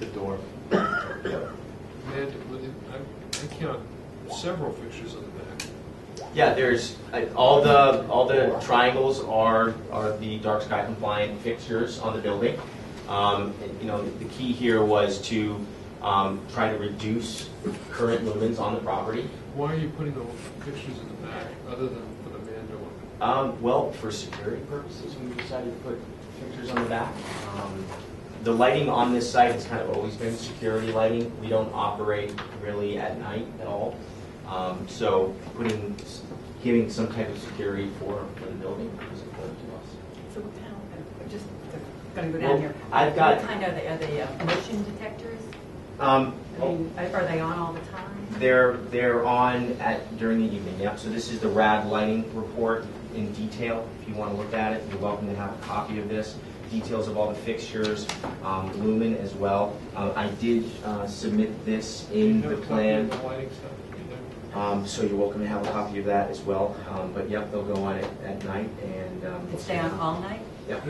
the door. And with it- I, I count several fixtures on the back. Yeah, there's, uh, all the, all the triangles are, are the dark sky compliant fixtures on the building. Um, and, You know, the key here was to um, try to reduce current lumens on the property. Why are you putting the fixtures in the back, other than for the man door? Um, Well, for security purposes, we decided to put fixtures on the back. Um, The lighting on this site has kind of always been security lighting. We don't operate really at night at all. Um, So putting, giving some type of security for, for the building was important to us. So what kind of, I'm just gonna go Well, down here. I've got- What kind are they, are they uh, motion detectors? Um, I mean, are are they on all the time? they're, they're on at, during the evening, yep. So this is the RAD lighting report in detail. If you want to look at it, you're welcome to have a copy of this. Details of all the fixtures, um, lumen as well. Um, I did, uh, submit this You in the have a copy of plan. The lighting stuff, you know? Um, so you're welcome to have a copy of that as well. Um, but yep, they'll go on it at night and, um. They stay on all night? Yep.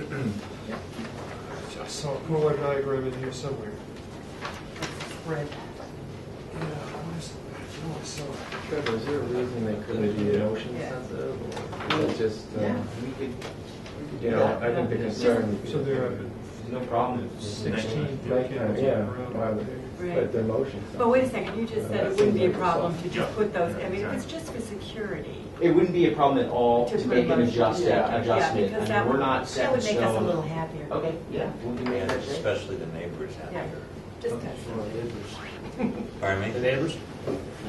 I saw a Kohler diagram in here somewhere. Right. Yeah, I was- I know I saw it. Trevor, is there a reason they couldn't be motion sensitive? Or is it just, Yeah. um, We could, you know, I think the concern. So there are no problem. sixteen Right, uh, decals yeah, around wow. there. But they're motion sensitive. But wait a second, you just said it wouldn't be a problem to just put those, I mean, if it's just for security. It wouldn't be a problem at all To to Oh, make an promote- adjust, yeah, adjustment. because I that mean, we're would- not set in That would make us a stone. little happier. Okay, yeah. we'll do And that. especially the neighbors out Yeah, there. just us. Pardon me? neighbors?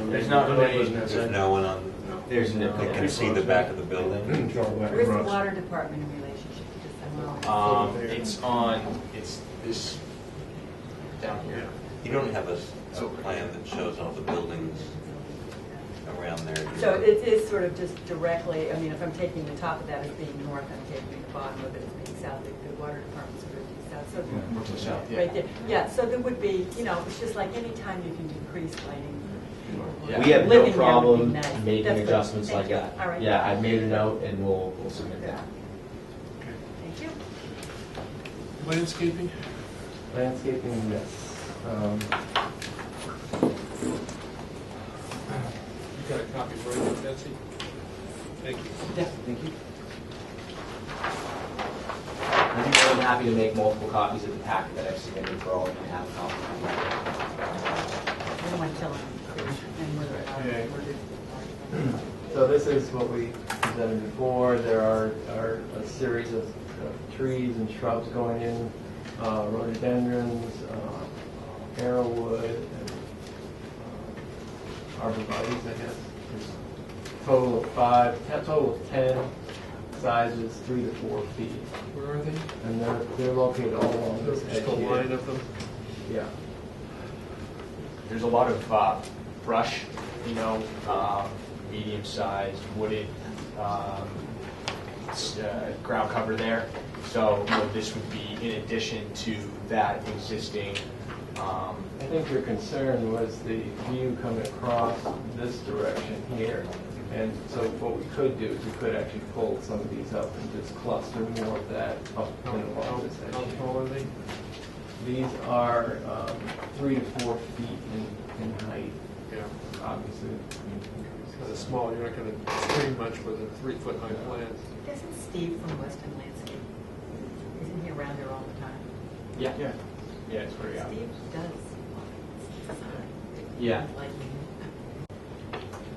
There's not really. There's no one on, There's no, that can see the back of the building? Where's the water department in relationship to this? I don't know. Um, it's on, it's this down here. hmm. You don't have a, s- a plan that shows all the buildings around there. do you? So it is sort of just directly, I mean, if I'm taking the top of that as being north, I'm taking the bottom of it as being south, the the water department's sort of south. So We're to the south, yeah. Right there, yeah, so there would be, you know, it's just like any time you can decrease lighting. Yeah. We have Living there no would be problem nice. making That's good. adjustments like Thank you. that. All right. Yeah, I've made a note and we'll, we'll submit that. Thank you. Landscaping? Landscaping, yes. Um, You got a copy for it, Betsy? Thank you. Yeah, thank you. I'm more than happy to make multiple copies of the packet that I've submitted for all of you to have a copy. I don't want to tell them. And whether it- whether it- So this is what we presented before. There are, are a series of of trees and shrubs going in, uh, rhododendrons, uh, arrowwood, and uh, arborvitae's, I guess. There's a Total of five, a total of 10 sizes, three to four feet. Where are they? And they're, they're located all along this edge Just a line here. of them? Yeah. There's a lot of uh, brush, you know, um, medium-sized wooded um, s- uh, ground cover there. So you know, this would be in addition to that existing, um, I think your concern was the view coming across this direction here. And so what we could do is we could actually fold some of these up and just cluster more of that up How and along this how- how edge. tall are they? These are um, three to four feet in, in height, Yeah. obviously. Kind of small, you're not going to screen much with a three-foot high plant. Isn't Steve from Western Landscape, isn't he around there all the time? yeah, yeah, yeah, it's pretty obvious. Steve does. Yeah. Like,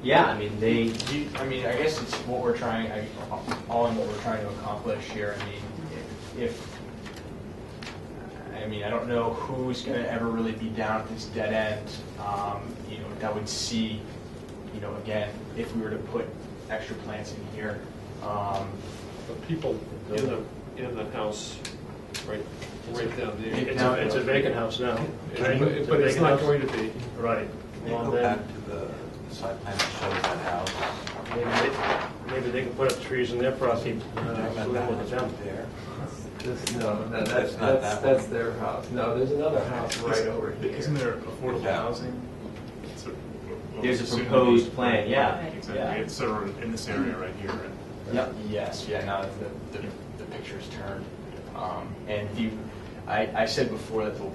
Yeah, I mean, they, Do you- I mean, I guess it's what we're trying, I- all in what we're trying to accomplish here. I mean, if, I mean, I don't know who's going to ever really be down at this dead end, um, you know, that would see, you know, again, if we were to put extra plants in here. um, The people in the, in the house, right, right down there. It's a, it's a vacant house now. right? But but it's vacant not house. going to be. Right. Can you Well, go back then, Uh, to the side plan that shows that house? maybe they, maybe they can put up trees in their property, Talking uh, about so we that look at house them. right there. This, no, no, that's, That's not that's, that one. that's their house. No, there's another house right over here. Isn't there affordable Yeah. housing? It's a- well, there's a soon to be- proposed plan, yeah. Exactly, it's sort of in this area right here, right? Yep. Yes, yeah, now that the, the- the picture's turned. Um, And the, I, I said before that the